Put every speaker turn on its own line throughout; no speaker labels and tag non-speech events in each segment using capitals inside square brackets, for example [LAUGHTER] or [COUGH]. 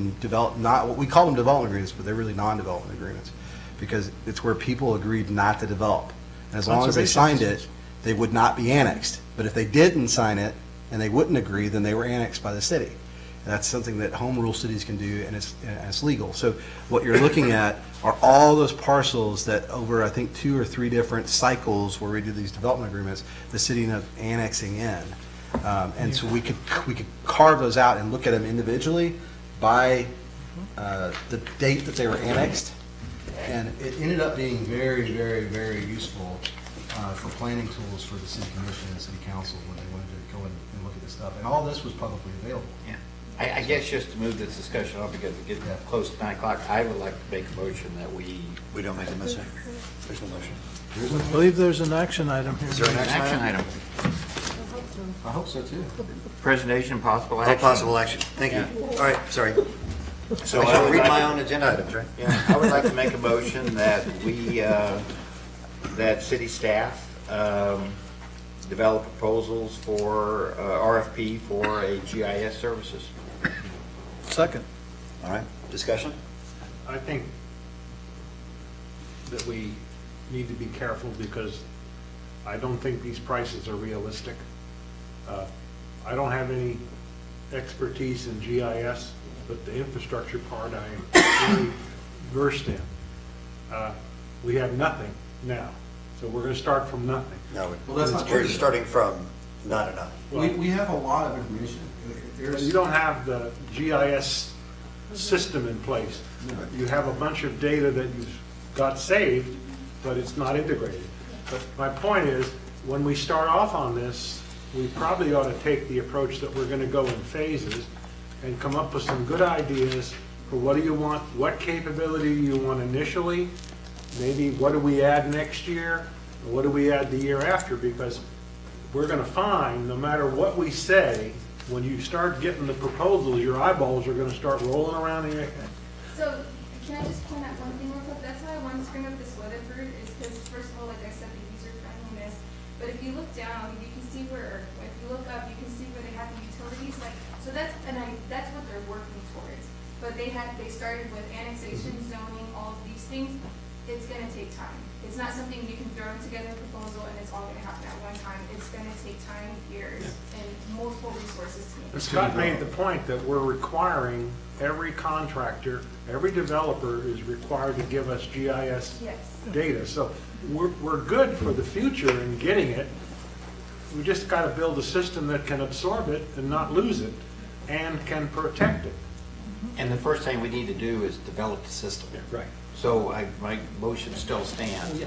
some develop, not, we call them development agreements, but they're really non-development agreements, because it's where people agreed not to develop. And as long as they
Conservation
signed it, they would not be annexed. But if they didn't sign it and they wouldn't agree, then they were annexed by the city. And that's something that home rule cities can do, and it's, and it's legal. So what you're looking at are all those parcels that over, I think, two or three different cycles where we do these development agreements, the city ended up annexing in. Um, And so we could, we could carve those out and look at them individually by uh, the date that they were annexed. And it ended up being very, very, very useful uh, for planning tools for the city commission and the city council when they wanted to go in and look at this stuff. And all this was publicly available.
I, I guess just to move this discussion on, because we're getting close to nine o'clock, I would like to make a motion that we.
We don't make a mistake. There's no motion.
I believe there's an action item here.
Is there an
An
action
action
item?
item,
I hope so, too.
presentation and possible
No
action.
Oh, possible action. Thank you. All right, sorry. So
I
I should
would
read
like-
my own agenda items, right?
Yeah, I would like to make a motion that we, uh, that city staff um, develop proposals for uh, RFP for a GIS services.
Second.
All right, discussion?
I think that we need to be careful because I don't think these prices are realistic. Uh, I don't have any expertise in GIS, but the infrastructure part I am really versed in. Uh, We have nothing now, so we're going to start from nothing.
No,
Well, that's not
we're
true.
starting from not enough.
We, we have a lot of information. There's-
You don't have the GIS system in place. You have a bunch of data that you've got saved, but it's not integrated. But my point is, when we start off on this, we probably ought to take the approach that we're going to go in phases and come up with some good ideas for what do you want, what capability do you want initially, maybe what do we add next year, and what do we add the year after, because we're gonna find, no matter what we say, when you start getting the proposals, your eyeballs are gonna start rolling around in your head.
So, can I just point out one thing real quick? That's why I wanted to bring up this Weatherford, is because first of all, like I said, the user friendliness. But if you look down, you can see where, or if you look up, you can see where they have the utilities, like, so that's, and I, that's what they're working towards. But they had, they started with annexation, zoning, all of these things. It's gonna take time. It's not something you can throw together a proposal and it's all gonna happen at one time. It's gonna take time, years, and multiple resources to make.
And Scott made the point that we're requiring every contractor, every developer is required to give us GIS
Yes.
data. So we're, we're good for the future in getting it. We just gotta build a system that can absorb it and not lose it, and can protect it.
And the first thing we need to do is develop the system.
Right.
So I, my motion still stands.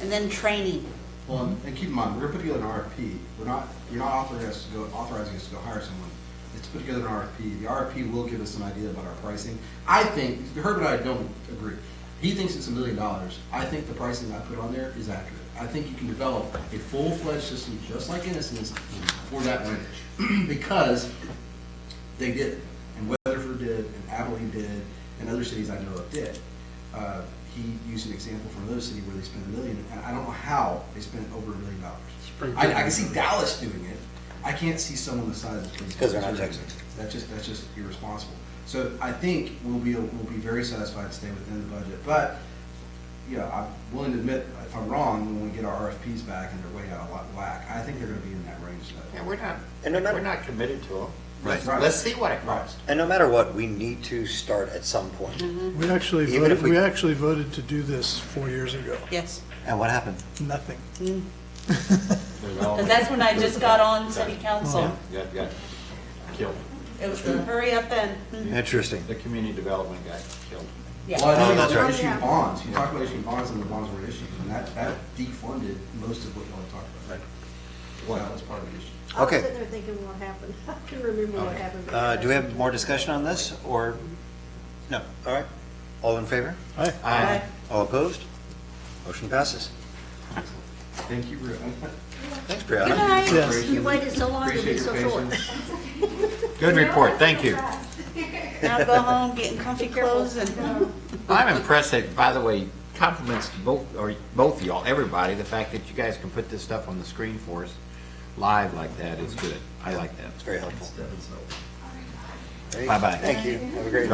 And then training.
Well, and- and keep in mind, we're gonna put together an RFP. We're not, you're not authorizing us to go, authorizing us to go hire someone. It's to put together an RFP. The RFP will give us an idea about our pricing. I think, Herb and I don't agree. He thinks it's a million dollars. I think the pricing I put on there is accurate. I think you can develop a full-fledged system, just like Innocence, for that range. [CLEARS THROAT] Because they did, and Weatherford did, and Abilene did, and other cities I know of did. Uh, He used an example from another city where they spent a million, and I don't know how they spent over a million dollars. I, I can see Dallas doing it, I can't see someone the size of. Springfield
Because they're not
doing it.
Texans.
That's just, that's just irresponsible. So I think we'll be, we'll be very satisfied to stay within the budget, but, you know, I'm willing to admit, if I'm wrong, when we get our RFPs back and they're way out of whack- whack, I think they're gonna be in that range, though.
Yeah, we're not,
And they're not-
we're not committed to them.
Right.
Let's see what it costs.
And no matter what, we need to start at some point. And
We actually
Even
voted,
if we-
we actually voted to do this four years ago.
Yes.
what happened?
Nothing.
Because that's when I just got on city council.
Got, got killed.
It was the hurry up and,
Interesting.
The community development guy killed.
yeah.
Well, I know
Oh, that's
you
right.
issued bonds, you talked about issuing bonds and the bonds were issued, and that, that defunded most of what y'all talked about. Well, that was part of the issue.
I was
Okay.
sitting there thinking what happened. [LAUGHS] I can remember what happened. but
Uh, Do we have more discussion on this, or? No, all right. All in favor?
Aye.
Aye.
All opposed? Motion passes.
Thank you, [LAUGHS] Brianna.
Thanks,
Good
Brianna.
night.
Yes.
You waited so long to be so short.
Good report, thank you.
Now go home, get in comfy clothes [LAUGHS] and,
I'm impressed that, by the way, compliments to both, or both y'all, everybody, the fact that you guys can put this stuff on the screen for us live like that is good. I like that.
It's very helpful.
Bye-bye.
Thank you. Have a great